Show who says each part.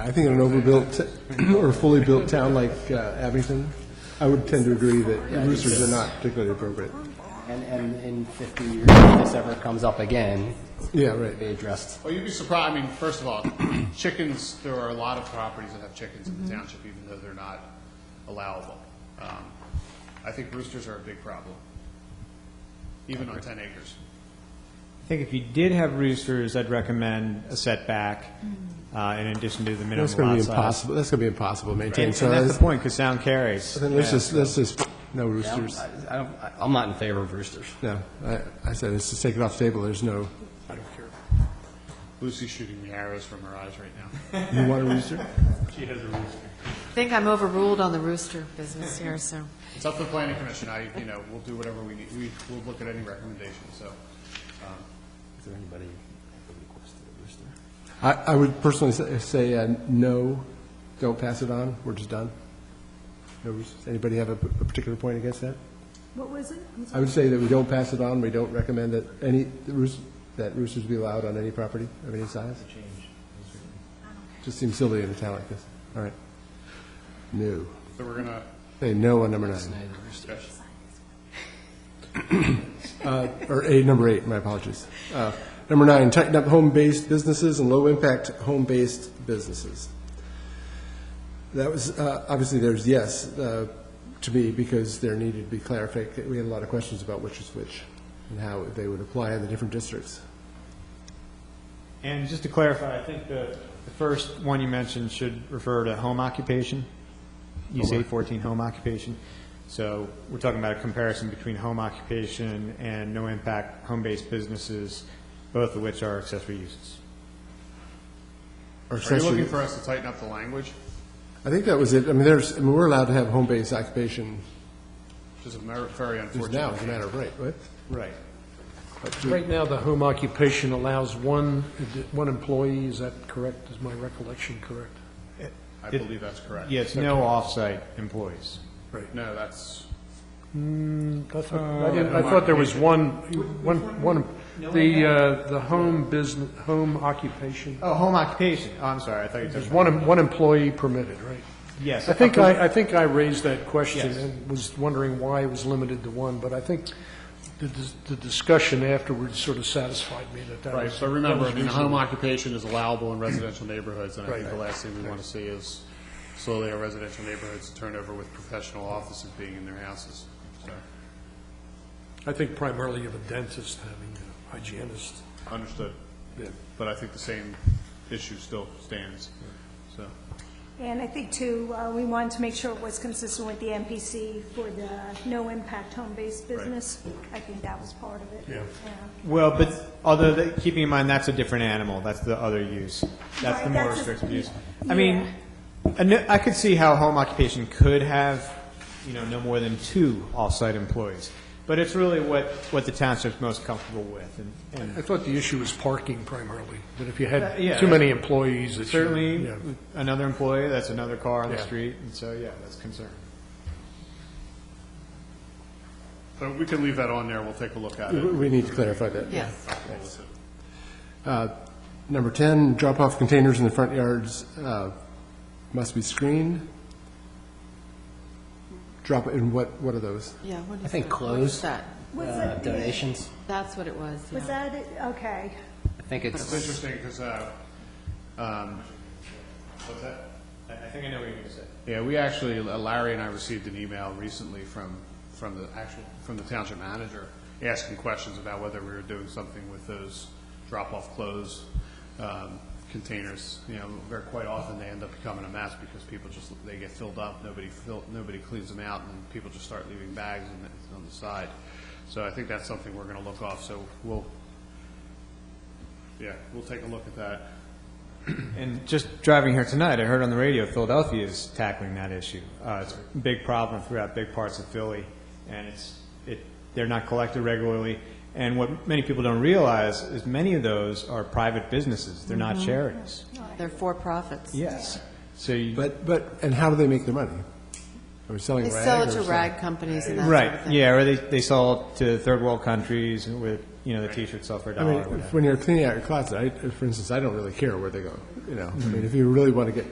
Speaker 1: I think in an overbuilt or fully built town like uh, Abington, I would tend to agree that roosters are not particularly appropriate.
Speaker 2: And, and in 50 years, if this ever comes up again,
Speaker 1: Yeah, right.
Speaker 2: be addressed.
Speaker 3: Well, you'd be surprised, I mean, first of all, chickens, there are a lot of properties that have chickens in the township, even though they're not allowable. Um, I think roosters are a big problem, even on 10 acres.
Speaker 4: I think if you did have roosters, I'd recommend a setback uh, in addition to the minimum lot
Speaker 1: That's
Speaker 4: size.
Speaker 1: going to be impossible, that's going to be impossible to
Speaker 4: And
Speaker 1: maintain.
Speaker 4: and
Speaker 1: So
Speaker 4: that's
Speaker 1: let's-
Speaker 4: the point, because sound carries.
Speaker 1: then let's just, let's just, no
Speaker 2: I don't,
Speaker 1: roosters.
Speaker 2: I don't, I'm not in favor of roosters.
Speaker 1: No, I I said, let's just take it off the table. There's no,
Speaker 3: Lucy's shooting me arrows from her eyes right now.
Speaker 1: you want a rooster?
Speaker 5: I think I'm overruled on the rooster business here, so.
Speaker 3: It's up to the planning commission, I, you know, we'll do whatever we need, we, we'll look at any recommendations, so. um,
Speaker 2: Is there anybody who requested a rooster?
Speaker 1: I I would personally say- say, uh, no, don't pass it on, we're just done. No roosters. Anybody have a p- a particular point against that?
Speaker 6: What was it? I'm
Speaker 1: I
Speaker 6: sorry.
Speaker 1: would say that we don't pass it on, we don't recommend that any, the roos- that roosters be allowed on any property of any size. Just seems silly in a town like this. All right. No.
Speaker 3: So we're gonna,
Speaker 1: Say no on number nine,
Speaker 3: discuss-
Speaker 1: Uh, or eight, number eight, my apologies. Uh, Number nine, tighten up home-based businesses and low-impact home-based businesses. That was, uh, obviously, there's yes, uh, to me, because there needed to be clarified, we had a lot of questions about which is which, and how they would apply in the different districts.
Speaker 4: And just to clarify, I think the, the first one you mentioned should refer to home occupation. You say 14 home occupation. So we're talking about a comparison between home occupation and no-impact home-based businesses, both of which are accessory uses.
Speaker 1: Or
Speaker 3: are you
Speaker 1: accessory-
Speaker 3: looking for us to tighten up the language?
Speaker 1: I think that was it. I mean, there's, I mean, we're allowed to have home-based occupation
Speaker 3: Which is a mer- very
Speaker 1: just
Speaker 3: unfortunate.
Speaker 1: now, as a matter of right, what?
Speaker 4: Right.
Speaker 7: Right now, the home occupation allows one, one employee, is that correct? Is my recollection correct?
Speaker 3: I believe that's correct.
Speaker 4: Yes, no off-site employees.
Speaker 3: No, that's,
Speaker 7: That's what- I didn't- I thought there was one, one, one, the, uh, the home business, home occupation,
Speaker 4: Oh, home occupation. Oh, I'm sorry, I thought you were
Speaker 7: there's
Speaker 4: talking
Speaker 7: one, em- one employee permitted, right?
Speaker 4: Yes.
Speaker 7: I think I, I think I raised that question
Speaker 4: Yes.
Speaker 7: and was wondering why it was limited to one, but I think the, dis- the discussion afterwards sort of satisfied me that that was.
Speaker 3: right, so remember, I
Speaker 7: that was
Speaker 3: mean, home
Speaker 7: reasonable.
Speaker 3: occupation is allowable in residential neighborhoods, and I think
Speaker 7: Right.
Speaker 3: the last thing we want to see is slowly our residential neighborhoods turn over with professional offices being in their houses, so,
Speaker 7: I think primarily of a dentist having a hygienist.
Speaker 3: understood. But I think the same issue still stands, so.
Speaker 6: And I think too, uh, we wanted to make sure it was consistent with the MPC for the no-impact home-based business. I think that was part of it. Yeah.
Speaker 4: Well, but although, the- keeping in mind, that's a different animal, that's the other use. That's
Speaker 6: Right,
Speaker 4: the more
Speaker 6: that's a-
Speaker 4: restrictive use.
Speaker 6: yeah.
Speaker 4: I mean, I kn- I could see how home occupation could have, you know, no more than two off-site employees, but it's really what, what the township's most comfortable with, and-
Speaker 7: I
Speaker 4: and
Speaker 7: thought the issue was parking primarily, that if you
Speaker 4: Uh,
Speaker 7: had
Speaker 4: yeah.
Speaker 7: too many employees, that you...
Speaker 4: certainly,
Speaker 7: yeah.
Speaker 4: with another employee, that's another car on the
Speaker 7: Yeah.
Speaker 4: street, and so, yeah, that's a concern.
Speaker 3: So we can leave that on there, we'll take a look at
Speaker 1: We
Speaker 7: Mm-hmm.
Speaker 3: it.
Speaker 1: we need to clarify that.
Speaker 5: Yes.
Speaker 1: Number 10, drop-off containers in the front yards uh, must be screened. Drop, and what, what are those?
Speaker 5: Yeah, what is that?
Speaker 2: I think
Speaker 5: What is
Speaker 2: closed
Speaker 5: that?
Speaker 6: Was
Speaker 2: uh,
Speaker 6: it-
Speaker 2: donations,
Speaker 5: That's what it was,
Speaker 6: Was
Speaker 5: yeah.
Speaker 6: that, it? okay.
Speaker 2: I think
Speaker 3: It's
Speaker 2: it's,
Speaker 3: interesting, because, um, what's that?
Speaker 4: I think I know what you're going to say.
Speaker 3: Yeah, we actually, uh, Larry and I received an email recently from, from the actual, from the township manager, asking questions about whether we were doing something with those drop-off clothes um, containers. You know, very quite often, they end up becoming a mess because people just, they get filled up, nobody fill, nobody cleans them out, and people just start leaving bags on the, on the side. So I think that's something we're gonna look off, so we'll, yeah, we'll take a look at that.
Speaker 4: And just driving here tonight, I heard on the radio Philadelphia is tackling that issue. Uh, it's a big problem throughout big parts of Philly, and it's it they're not collected regularly. And what many people don't realize is many of those are private businesses; they're not charities.
Speaker 5: They're for-profits.
Speaker 4: Yes. So you,
Speaker 1: But, but, and how do they make their money? Are we selling
Speaker 5: They
Speaker 1: rag?
Speaker 5: sell it
Speaker 1: or
Speaker 5: to
Speaker 1: something?
Speaker 5: rag companies and that sort of
Speaker 4: right?
Speaker 5: thing.
Speaker 4: Yeah, or they they sell it to third world countries with you know the T-shirt sell for a
Speaker 1: I
Speaker 4: dollar.
Speaker 1: mean,
Speaker 4: or whatever.
Speaker 1: if- when you're cleaning out your closet, I, for instance, I don't really care where they go, you know? I mean, if you really want to get,